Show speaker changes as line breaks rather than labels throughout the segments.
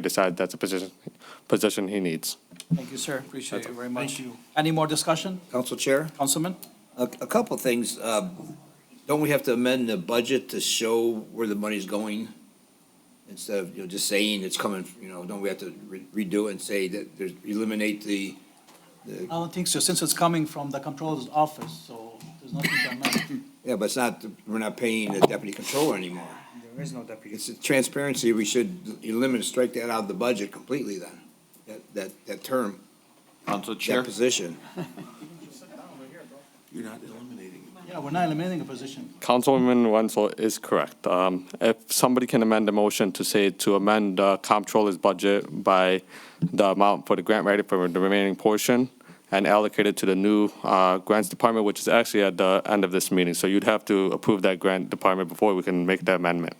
decide that's a position, position he needs.
Thank you, sir. Appreciate you very much.
Thank you.
Any more discussion,
Council Chair,
Councilman?
a, a couple of things. Um, Don't we have to amend the budget to show where the money's going? Instead of, you know, just saying it's coming, you know, don't we have to re- redo it and say that there's, eliminate the,
I don't think so, since it's coming from the Controller's office, so there's nothing to amend.
yeah, but it's not, we're not paying the deputy controller anymore.
There is no deputy.
It's a transparency, we should eliminate, strike that out of the budget completely then, that, that, that term,
Council
that
Chair,
position.
Yeah, we're not eliminating a position.
Councilwoman Wenzel is correct. Um, If somebody can amend the motion to say to amend the comptroller's budget by the amount for the grant writer for the remaining portion and allocate it to the new uh, grants department, which is actually at the end of this meeting. So you'd have to approve that grant department before we can make the amendment.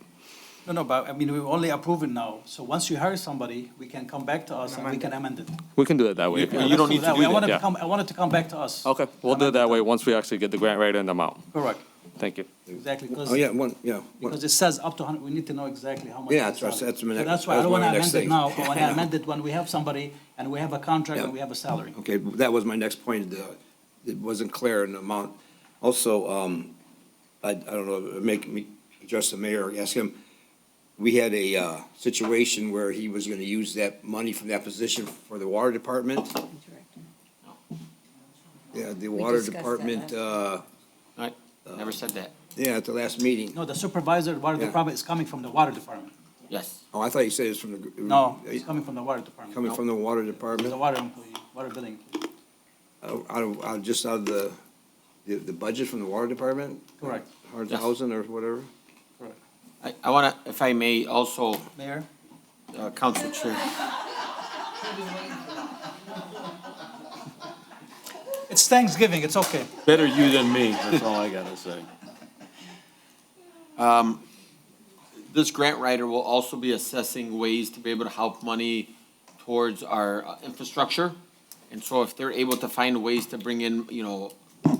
No, no, but I mean, we're only approving now, so once you hire somebody, we can come back to us and we can amend it.
We can do it that way.
You- you don't need to
way.
do
I want
that,
it to
yeah.
come, I want it to come back to us.
Okay, we'll do it that way once we actually get the grant writer and the amount.
Correct,
Thank you.
exactly,
Oh,
because,
yeah, one, yeah. one-
because it says up to hundred, we need to know exactly how much.
Yeah,
it's
that's-
on.
that's my
So
next-
That's why I
that
don't
was
want
my
to
next
amend it
thing.
now, I want to amend it when we have somebody and we have a contract and we have a salary.
Okay, that was my next point, the- it wasn't clear in the amount. Also, um, I, I don't know, make me, address the mayor, ask him, we had a, uh, situation where he was gonna use that money from that position for the water department. Yeah, the water
discussed that
department,
last-
uh,
I never said that.
yeah, at the last meeting.
No, the supervisor, water
Yeah.
department is coming from the water department.
Yes.
Oh, I thought you said it was from the.
No, it's coming from the water department.
Coming from the water department,
The water employee, water billing. employee.
Uh, out of, out, just out of the, the, the budget from the water department?
Correct.
Hundred
Yes.
thousand or whatever?
I, I want to, if I may, also,
Mayor,
uh, Council Chair,
it's Thanksgiving, it's okay.
Better you than me, that's all I gotta say.
this grant writer will also be assessing ways to be able to help money towards our uh, infrastructure. And so if they're able to find ways to bring in, you know,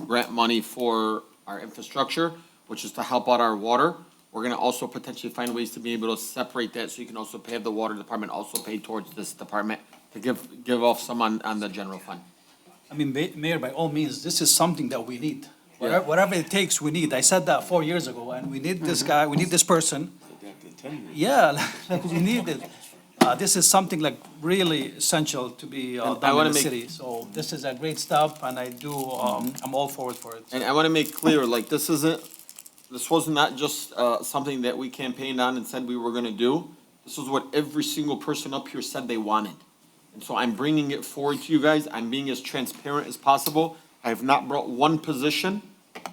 grant money for our infrastructure, which is to help out our water, we're gonna also potentially find ways to be able to separate that, so you can also pay the water department, also pay towards this department, to give, give off some on, on the general fund.
I mean, ba- Mayor, by all means, this is something that we need. Whatever whatever it takes, we need. I said that four years ago, and we need this guy, we need this person. Yeah, like, we need it. Uh, This is something like really essential to be uh,
And I
done
wanna
in the
make-
city. So this is a great step, and I do, um, I'm all forward for it.
And I want to make clear, like, this isn't, this was not just uh, something that we campaigned on and said we were going to do. This is what every single person up here said they wanted. And so I'm bringing it forward to you guys. I'm being as transparent as possible. I have not brought one position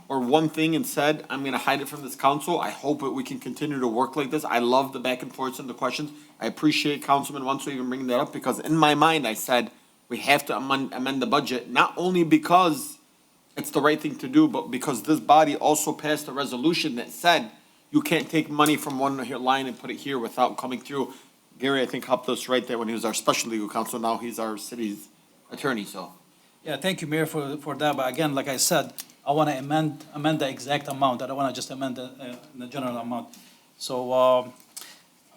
or one thing and said, I'm going to hide it from this council. I hope that we can continue to work like this. I love the back and forths and the questions. I appreciate Councilman Wanso even bringing that up because in my mind, I said, we have to amend, amend the budget, not only because it's the right thing to do, but because this body also passed a resolution that said you can't take money from one here line and put it here without coming through. Gary, I think, helped us right there when he was our special legal counsel. Now he's our city's attorney, so.
Yeah, thank you, Mayor, for, for that, but again, like I said, I want to amend, amend the exact amount, I don't want to just amend the, uh, the general amount. So, um,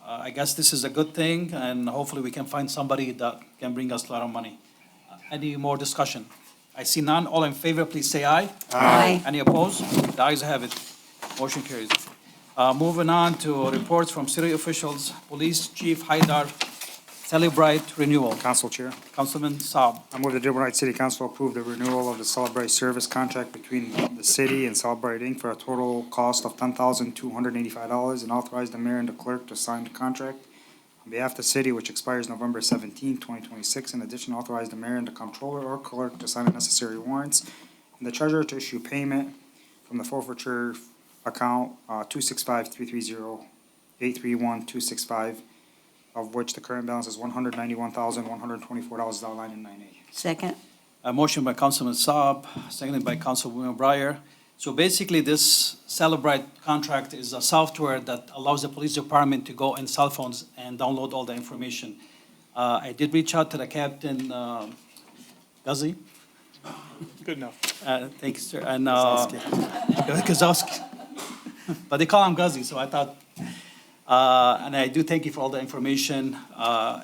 uh, I guess this is a good thing, and hopefully we can find somebody that can bring us a lot of money. Uh, Any more discussion? I see none, all in favor, please say aye.
Aye.
Any opposed? The ayes have it, motion carries. Uh, moving on to reports from city officials, Police Chief Haidar, Celebrite Renewal,
Council Chair,
Councilman Saab.
I move the Dearborn Heights City Council approve the renewal of the Celebrite Service Contract between the city and Celebrite Inc. for a total cost of ten thousand two hundred eighty-five dollars and authorize the mayor and the clerk to sign the contract on behalf of the city, which expires November seventeenth, twenty twenty-six. In addition, authorize the mayor and the comptroller or clerk to sign the necessary warrants and the treasurer to issue payment from the forfeiture account, uh, two six five three three zero eight three one two six five of which the current balance is one hundred ninety-one thousand, one hundred twenty-four dollars outlined in nine A.
Second,
A motion by Councilman Saab, seconded by Councilwoman Breyer. So basically, this Celebrite contract is a software that allows the police department to go in cell phones and download all the information. Uh, I did reach out to the captain, uh, Guzzi. Good enough. Uh, thank you, sir, and, uh, Gazowski. But they call him Guzzi, so I thought, uh, Uh, And I do thank you for all the information. Uh,